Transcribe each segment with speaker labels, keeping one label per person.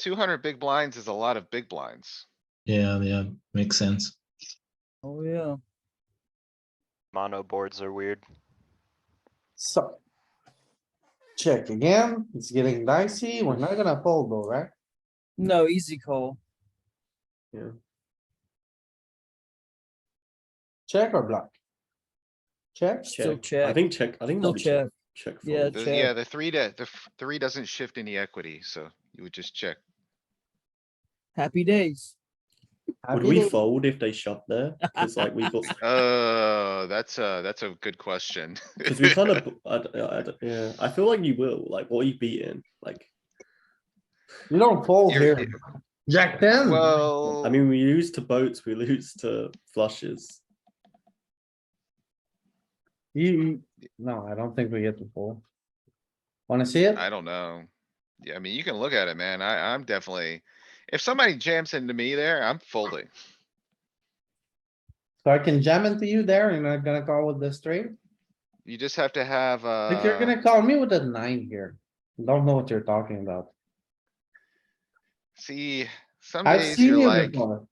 Speaker 1: Two hundred big blinds is a lot of big blinds.
Speaker 2: Yeah, yeah, makes sense.
Speaker 3: Oh, yeah.
Speaker 4: Mono boards are weird.
Speaker 5: So. Check again. It's getting dicey. We're not gonna fold though, right?
Speaker 3: No, easy call.
Speaker 5: Check or block? Check?
Speaker 3: Still
Speaker 6: Check. I
Speaker 3: check.
Speaker 6: think check. I think
Speaker 3: Still
Speaker 6: no
Speaker 3: check.
Speaker 6: check. Check.
Speaker 3: Yeah,
Speaker 6: fold.
Speaker 1: The-
Speaker 3: check.
Speaker 1: Yeah, the three to, the f- three doesn't shift any equity, so you would just check.
Speaker 3: Happy days.
Speaker 6: Would
Speaker 5: Happy
Speaker 6: we
Speaker 5: days.
Speaker 6: fold if they shut there? Because like we got,
Speaker 1: Oh, that's a, that's a good question.
Speaker 6: because we kind of, I, d- I d- yeah. I feel like you will. Like what are you beating? Like
Speaker 5: You don't fold
Speaker 1: You're-
Speaker 5: here. Jack ten?
Speaker 1: Well,
Speaker 6: I mean, we lose to boats, we lose to flushes.
Speaker 5: You, no, I don't think we get to fold. Wanna see it?
Speaker 1: I don't know. Yeah, I mean, you can look at it, man. I, I'm definitely, if somebody jams into me there, I'm folding.
Speaker 5: So I can jam into you there and I'm gonna call with the straight.
Speaker 1: You just have to have, uh.
Speaker 5: If you're gonna call me with a nine here, don't know what you're talking about.
Speaker 1: See, some
Speaker 5: I've
Speaker 1: days
Speaker 5: seen
Speaker 1: you're
Speaker 5: you
Speaker 1: like,
Speaker 5: before.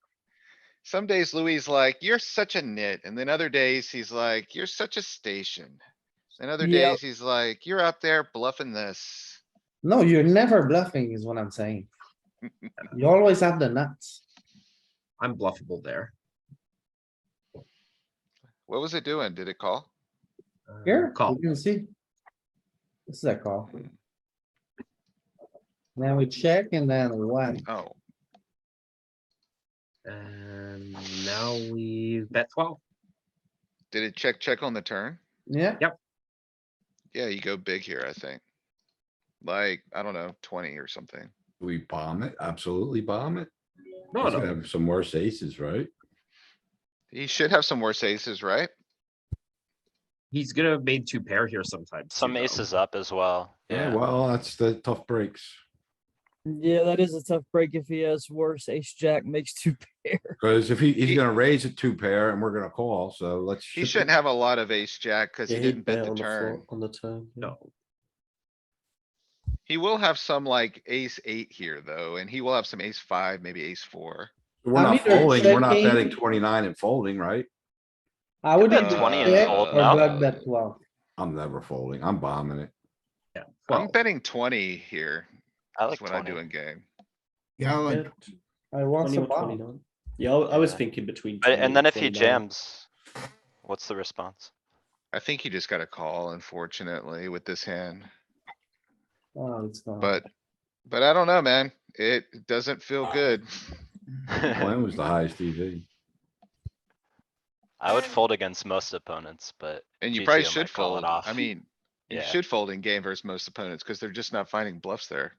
Speaker 1: some days Louis is like, you're such a nit, and then other days he's like, you're such a station. And other
Speaker 3: Yep.
Speaker 1: days he's like, you're out there bluffing this.
Speaker 5: No, you're never bluffing is what I'm saying. You always have the nuts.
Speaker 7: I'm bluffable there.
Speaker 1: What was it doing? Did it call?
Speaker 7: Uh,
Speaker 5: Here,
Speaker 7: Call.
Speaker 5: you can see. This is a call. Now we check and then one.
Speaker 1: Oh,
Speaker 7: And now we bet twelve.
Speaker 1: did it check, check on the turn?
Speaker 5: Yeah,
Speaker 1: Yeah, you go big here, I think. Like, I don't know, twenty or something.
Speaker 8: Do We bomb it, absolutely bomb it.
Speaker 7: No,
Speaker 8: He's gonna
Speaker 7: no,
Speaker 8: have some worse aces, right?
Speaker 1: He should have some worse aces, right?
Speaker 7: he's gonna have made two pair here sometimes.
Speaker 4: Some
Speaker 7: too, though.
Speaker 4: aces up as well.
Speaker 8: Yeah,
Speaker 4: Yeah,
Speaker 8: well, that's the tough breaks.
Speaker 3: Yeah, that is a tough break if he has worse. Ace jack makes two pair.
Speaker 8: Cause if he,
Speaker 1: He-
Speaker 8: he's gonna raise a two pair and we're gonna call, so let's.
Speaker 1: He
Speaker 8: ship
Speaker 1: shouldn't
Speaker 8: it.
Speaker 1: have a lot of ace jack cuz he
Speaker 6: Yeah,
Speaker 1: didn't
Speaker 6: bet
Speaker 1: bet the
Speaker 6: on the
Speaker 1: turn.
Speaker 6: floor, on the turn. yeah.
Speaker 7: No,
Speaker 1: He will have some like ace eight here though, and he will have some ace five, maybe ace four.
Speaker 8: We're
Speaker 5: I'm
Speaker 8: not
Speaker 5: either
Speaker 8: folding, we're not
Speaker 5: checking-
Speaker 8: betting twenty-nine and folding, right?
Speaker 5: I would
Speaker 4: bet
Speaker 5: have
Speaker 4: 20 and
Speaker 5: checked
Speaker 4: fold
Speaker 5: or
Speaker 4: now.
Speaker 5: block that twelve.
Speaker 8: I'm never folding, I'm bombing it.
Speaker 7: yeah.
Speaker 1: I'm
Speaker 7: Well,
Speaker 1: betting twenty here.
Speaker 4: I like
Speaker 1: That's what I do
Speaker 4: twenty.
Speaker 1: in game.
Speaker 5: Oh,
Speaker 6: Yeah,
Speaker 5: I want
Speaker 6: 20
Speaker 5: some
Speaker 6: or
Speaker 5: bomb.
Speaker 6: 29. Yeah, I I was
Speaker 4: Yeah.
Speaker 6: thinking between.
Speaker 4: But,
Speaker 6: 20,
Speaker 4: and then if he
Speaker 6: 29.
Speaker 4: jams, what's the response?
Speaker 1: I think you just got a call unfortunately with this hand,
Speaker 5: Oh, it's gone.
Speaker 1: but, but I don't know, man. It doesn't
Speaker 5: Ah.
Speaker 1: feel good.
Speaker 8: Mine was the highest E EV.
Speaker 4: I would fold against most opponents, but
Speaker 1: And you
Speaker 4: GTO
Speaker 1: probably
Speaker 4: might
Speaker 1: should
Speaker 4: call it
Speaker 1: fold. I
Speaker 4: off.
Speaker 1: mean, you
Speaker 4: yeah,
Speaker 1: should fold in game versus most opponents because they're just not finding bluffs there.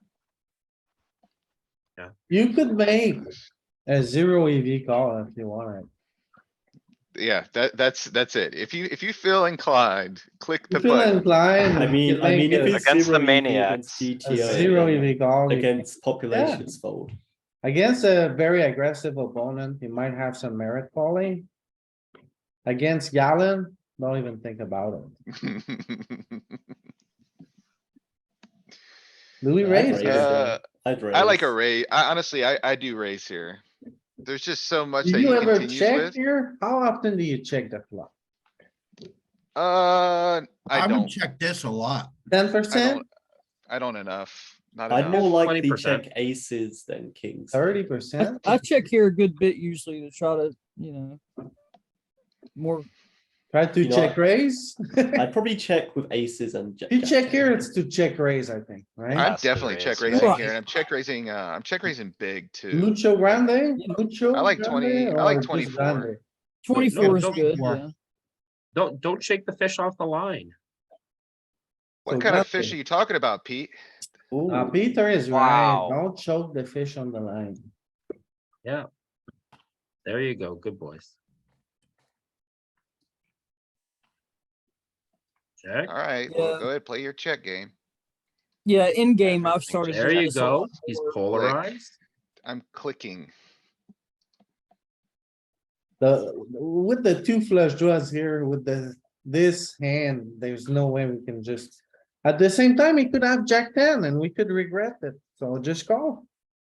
Speaker 5: You could make a zero EV call if you want it.
Speaker 1: Yeah, that, that's, that's it. If you, if you feel inclined, click the
Speaker 5: If you feel
Speaker 1: button.
Speaker 5: inclined.
Speaker 6: I
Speaker 5: you
Speaker 6: mean,
Speaker 5: can
Speaker 6: I mean,
Speaker 5: make
Speaker 6: if
Speaker 5: a-
Speaker 6: it's
Speaker 4: Against the
Speaker 6: zero EV
Speaker 4: maniacs.
Speaker 6: against
Speaker 5: A
Speaker 6: GTO,
Speaker 5: zero
Speaker 6: then
Speaker 5: EV call. you can-
Speaker 6: Against populations fold.
Speaker 5: Against a very aggressive opponent, you might have some merit calling. Against Galen, don't even think about it. Louis
Speaker 6: Yeah,
Speaker 5: raised.
Speaker 6: raised.
Speaker 5: it.
Speaker 1: Uh,
Speaker 6: I'd raise.
Speaker 1: I like a raise. I honestly, I, I do raise here. There's just so much
Speaker 5: Do
Speaker 1: that
Speaker 5: you
Speaker 1: you
Speaker 5: ever
Speaker 1: can
Speaker 5: check
Speaker 1: use with.
Speaker 5: here? How often do you check the flop?
Speaker 1: Uh, I don't,
Speaker 9: check this a lot.
Speaker 5: Ten
Speaker 1: I
Speaker 5: percent,
Speaker 1: don't, I don't enough, not
Speaker 6: I'd more
Speaker 1: enough.
Speaker 6: like the
Speaker 7: 20%.
Speaker 6: check aces than kings.
Speaker 5: thirty
Speaker 3: I,
Speaker 5: percent?
Speaker 3: I check here a good bit usually to try to, you know, more.
Speaker 5: Try to
Speaker 6: You know,
Speaker 5: check raise?
Speaker 6: I'd probably check with aces and. ja-
Speaker 5: You
Speaker 6: jack
Speaker 5: check here,
Speaker 6: ten.
Speaker 5: it's to check raise, I think, right?
Speaker 1: I'm
Speaker 4: Has to
Speaker 1: definitely
Speaker 4: raise,
Speaker 1: check
Speaker 4: right?
Speaker 1: raising here
Speaker 3: Right.
Speaker 1: and I'm check raising, uh, I'm check raising big too.
Speaker 5: Mucho grande, mucho.
Speaker 1: I like
Speaker 5: grande
Speaker 1: 20 I like
Speaker 5: or just
Speaker 1: 24.
Speaker 5: grande?
Speaker 3: Twenty-four is
Speaker 7: don't
Speaker 3: good,
Speaker 9: more.
Speaker 3: yeah.
Speaker 7: don't, don't shake the fish off the line.
Speaker 1: What
Speaker 5: So
Speaker 1: kind of
Speaker 5: nothing.
Speaker 1: fish are you talking about, Pete?
Speaker 6: Ooh,
Speaker 5: Uh, Peter is right.
Speaker 4: Wow.
Speaker 5: Don't choke the fish on the line.
Speaker 7: There you go, good boys. Check,
Speaker 1: Alright, well,
Speaker 3: Yeah.
Speaker 1: go ahead, play your check game.
Speaker 3: Yeah, in game, I've
Speaker 4: Everything
Speaker 3: started. to
Speaker 7: there
Speaker 3: try
Speaker 7: you
Speaker 3: to solve
Speaker 7: go, he's
Speaker 3: for-
Speaker 7: polarized.
Speaker 1: I'm clicking.
Speaker 5: The, with the two flush draws here with the, this hand, there's no way we can just. At the same time, he could have jack ten and we could regret it, so just call.